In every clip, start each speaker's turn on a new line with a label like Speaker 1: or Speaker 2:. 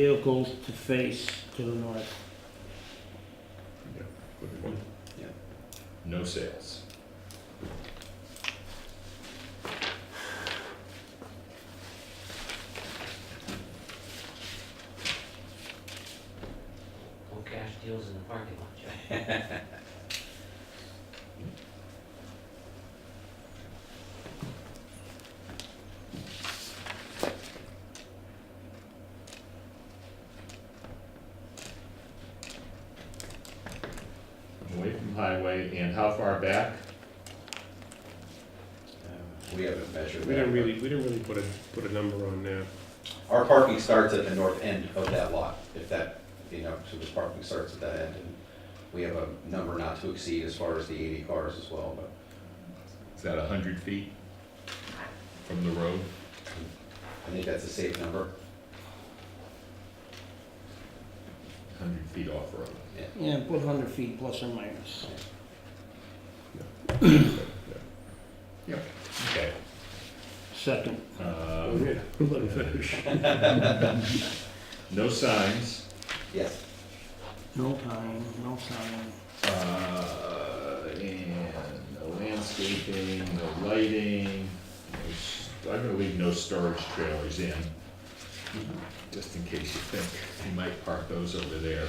Speaker 1: vehicles to face to the north.
Speaker 2: Good point.
Speaker 3: Yeah.
Speaker 2: No sales.
Speaker 4: No cash deals in the parking lot, Joe.
Speaker 2: Away from highway, and how far back?
Speaker 3: Uh, We haven't measured
Speaker 5: We
Speaker 3: that.
Speaker 5: didn't really, we didn't really put a, put a number on there.
Speaker 3: Our parking starts at the north end of that lot, if that, you know, so the parking starts at that end. and We have a number not to exceed as far as the eighty cars as well, but
Speaker 2: Is that a hundred feet from the road?
Speaker 3: I think that's a safe number.
Speaker 2: Hundred feet off road.
Speaker 1: Yeah, put hundred feet plus or minus.
Speaker 2: Okay.
Speaker 1: Second,
Speaker 2: Um, no signs,
Speaker 3: Yes,
Speaker 1: no time, no sign.
Speaker 2: uh, and no landscaping, no lighting. no s- I'm gonna leave no storage trailers in,
Speaker 1: Mm-hmm.
Speaker 2: just in case you think you might park those over there.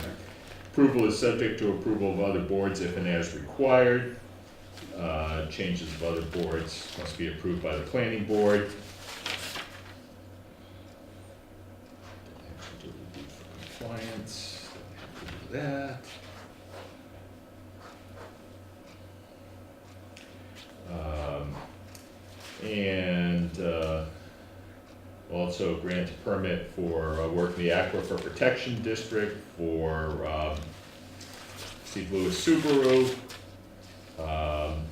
Speaker 2: Approval is subject to approval of other boards if and as required. Uh, Changes of other boards must be approved by the planning board. Actually, do we do for Compliance, don't have to do that. Um, And uh, also grant a permit for uh, work in the Aquifer Protection District for um, Steve Lewis Subaru. Um,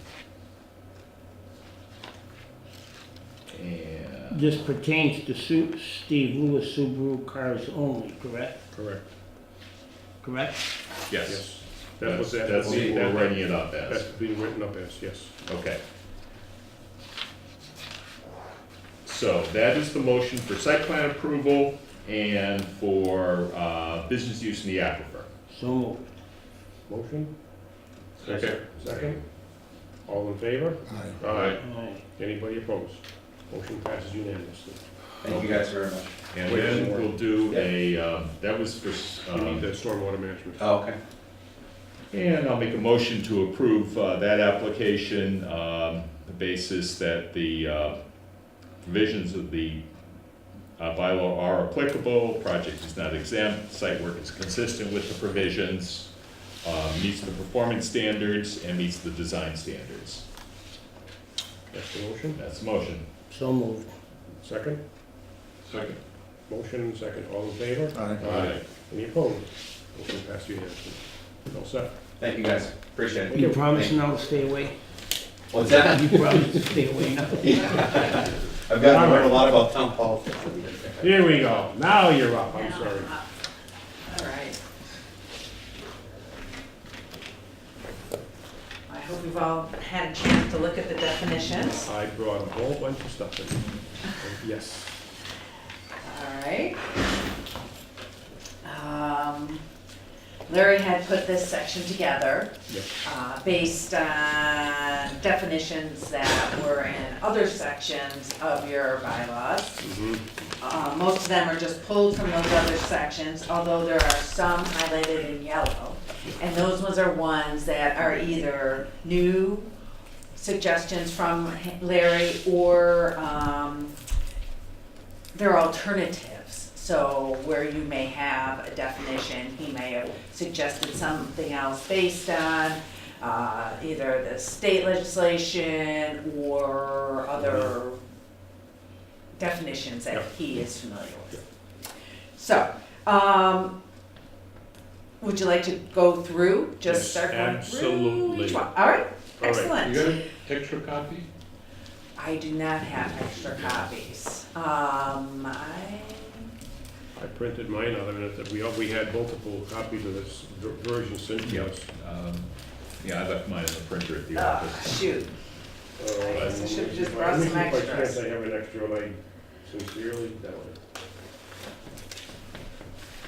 Speaker 2: And,
Speaker 1: This pertains to Su- Steve Lewis Subaru cars only, correct?
Speaker 5: Correct.
Speaker 1: Correct?
Speaker 2: yes,
Speaker 5: Yes. That
Speaker 2: that's,
Speaker 5: was that.
Speaker 2: that's
Speaker 5: was-
Speaker 2: what we're writing it up
Speaker 5: That's
Speaker 2: as,
Speaker 5: being written up as, yes.
Speaker 2: okay. So that is the motion for site plan approval and for uh, business use in the aquifer.
Speaker 1: So moved.
Speaker 5: Motion?
Speaker 2: Okay.
Speaker 5: Second? All in favor? Aye. Aye.
Speaker 1: Alright.
Speaker 5: Anybody opposed? Motion passes unanimously.
Speaker 3: thank you guys very much.
Speaker 2: And then we'll do a, um, that was for,
Speaker 5: We need
Speaker 2: um,
Speaker 5: the stormwater management.
Speaker 3: Oh, okay.
Speaker 2: and I'll make a motion to approve uh, that application, um, the basis that the uh, provisions of the uh, bylaw are applicable, project is not exempt, site work is consistent with the provisions, uh, meets the performance standards, and meets the design standards.
Speaker 5: That's the motion.
Speaker 2: That's the motion.
Speaker 1: So moved.
Speaker 5: Second?
Speaker 2: Second.
Speaker 5: Motion and second. All in favor?
Speaker 2: Aye.
Speaker 5: Any opposed? Motion passes unanimously. All set.
Speaker 3: Thank you guys, appreciate it.
Speaker 1: You promise now to stay away?
Speaker 3: What's that?
Speaker 1: You promise to stay away now?
Speaker 3: I've gotten to learn a lot about town politics.
Speaker 5: Here we go. Now you're up. I'm sorry.
Speaker 6: All right. I hope you've all had a chance to look at the definitions.
Speaker 5: I brought a whole bunch of stuff in. Yes.
Speaker 6: All right. Um, Larry had put this section together
Speaker 5: Yes.
Speaker 6: uh, based on definitions that were in other sections of your bylaws.
Speaker 5: Mhm.
Speaker 6: Uh, Most of them are just pulled from those other sections, although there are some highlighted in yellow. And those ones are ones that are either new suggestions from Larry or um, they're alternatives. So where you may have a definition, he may have suggested something else based on uh, either the state legislation or other definitions that
Speaker 5: Yep.
Speaker 6: he is familiar with. So, um, would you like to go through,
Speaker 5: Yes,
Speaker 6: just start going through
Speaker 5: absolutely.
Speaker 6: each one?
Speaker 5: All
Speaker 6: All right,
Speaker 5: right.
Speaker 6: excellent.
Speaker 2: got an extra copy?
Speaker 6: I do not have extra copies. Um, I,
Speaker 5: I printed mine out of it, that we, we had multiple copies of this ver- version sent to us.
Speaker 2: Um, Yeah, I left mine in the printer at the
Speaker 6: oh,
Speaker 2: office.
Speaker 6: shoot,
Speaker 5: Uh,
Speaker 6: I guess I should've just brought
Speaker 5: let me
Speaker 6: some
Speaker 5: see if I can,
Speaker 6: extras.
Speaker 5: I have an extra, like, sincerely, that one.